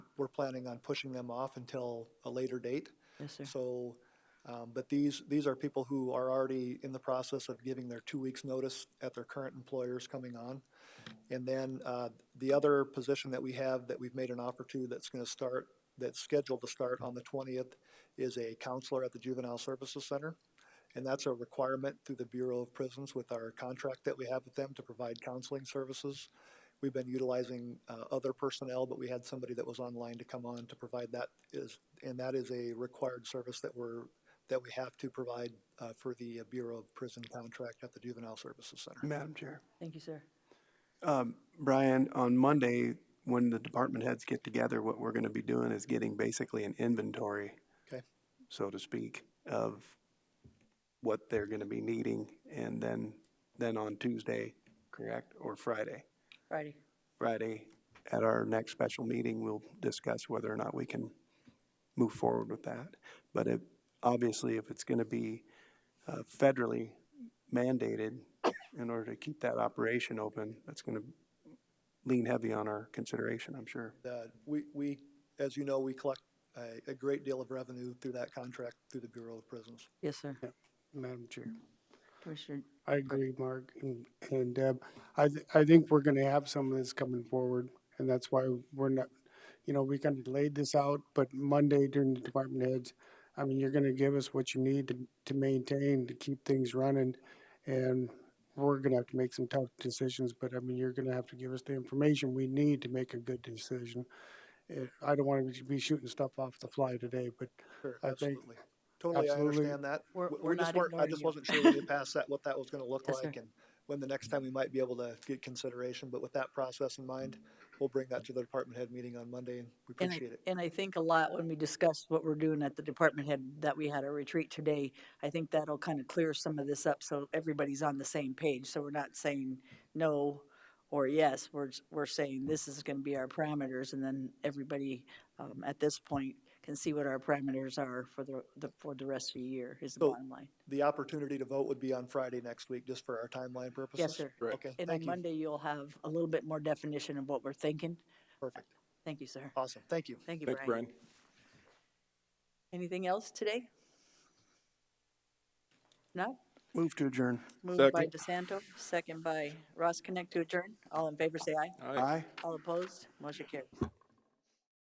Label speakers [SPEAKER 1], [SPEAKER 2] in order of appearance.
[SPEAKER 1] we're planning on pushing them off until a later date.
[SPEAKER 2] Yes, sir.
[SPEAKER 1] So, um, but these, these are people who are already in the process of giving their two weeks' notice at their current employers coming on. And then, uh, the other position that we have that we've made an offer to that's gonna start, that's scheduled to start on the twentieth is a counselor at the Juvenile Services Center. And that's a requirement through the Bureau of Prisons with our contract that we have with them to provide counseling services. We've been utilizing uh, other personnel, but we had somebody that was online to come on to provide that is, and that is a required service that we're, that we have to provide uh, for the uh, Bureau of Prison contract at the Juvenile Services Center.
[SPEAKER 3] Madam Chair.
[SPEAKER 2] Thank you, sir.
[SPEAKER 3] Um, Brian, on Monday, when the department heads get together, what we're gonna be doing is getting basically an inventory.
[SPEAKER 1] Okay.
[SPEAKER 3] So to speak, of what they're gonna be needing and then, then on Tuesday, correct, or Friday?
[SPEAKER 2] Friday.
[SPEAKER 3] Friday, at our next special meeting, we'll discuss whether or not we can move forward with that. But it, obviously, if it's gonna be uh, federally mandated in order to keep that operation open, that's gonna lean heavy on our consideration, I'm sure.
[SPEAKER 1] Uh, We, we, as you know, we collect a, a great deal of revenue through that contract through the Bureau of Prisons.
[SPEAKER 2] Yes, sir.
[SPEAKER 4] Madam Chair.
[SPEAKER 2] Commissioner,
[SPEAKER 4] I agree, Mark and- and Deb. I, th- I think we're gonna have some of this coming forward, and that's why we're not, you know, we kind of laid this out, but Monday during the department heads, I mean, you're gonna give us what you need to, to maintain, to keep things running, and we're gonna have to make some tough decisions, but I mean, you're gonna have to give us the information we need to make a good decision. Eh, I don't want to be shooting stuff off the fly today, but
[SPEAKER 1] Sure,
[SPEAKER 4] I think-
[SPEAKER 1] absolutely. Totally, I
[SPEAKER 4] absolutely.
[SPEAKER 1] understand that.
[SPEAKER 2] We're-
[SPEAKER 1] W-
[SPEAKER 2] we're
[SPEAKER 1] we just
[SPEAKER 2] not
[SPEAKER 1] weren't- I
[SPEAKER 2] ignoring
[SPEAKER 1] just
[SPEAKER 2] you.
[SPEAKER 1] wasn't sure when you passed that, what that was gonna look
[SPEAKER 2] Yes, sir.
[SPEAKER 1] like and when the next time we might be able to get consideration, but with that process in mind, we'll bring that to the department head meeting on Monday and we
[SPEAKER 2] and I,
[SPEAKER 1] appreciate it.
[SPEAKER 2] and I think a lot when we discussed what we're doing at the department head, that we had a retreat today, I think that'll kind of clear some of this up, so everybody's on the same page, so we're not saying no or yes, we're, s- we're saying this is gonna be our parameters, and then everybody, um, at this point can see what our parameters are for the, the, for the rest of the year, is the
[SPEAKER 1] So-
[SPEAKER 2] bottom line.
[SPEAKER 1] The opportunity to vote would be on Friday next week, just for our timeline purposes?
[SPEAKER 2] sir.
[SPEAKER 5] Correct.
[SPEAKER 1] Okay,
[SPEAKER 2] And
[SPEAKER 1] thank
[SPEAKER 2] on
[SPEAKER 1] you.
[SPEAKER 2] Monday, you'll have a little bit more definition of what we're thinking.
[SPEAKER 1] Perfect.
[SPEAKER 2] Thank you, sir.
[SPEAKER 1] Awesome, thank you.
[SPEAKER 2] Thank you,
[SPEAKER 5] Thanks,
[SPEAKER 2] Brian.
[SPEAKER 5] Brian.
[SPEAKER 2] Anything else today? No?
[SPEAKER 3] Move to adjourn.
[SPEAKER 2] Moved by DeSanto, second by Ross Connect to adjourn. All in favor, say aye.
[SPEAKER 5] All right.
[SPEAKER 3] Aye.
[SPEAKER 2] All opposed, motion carries.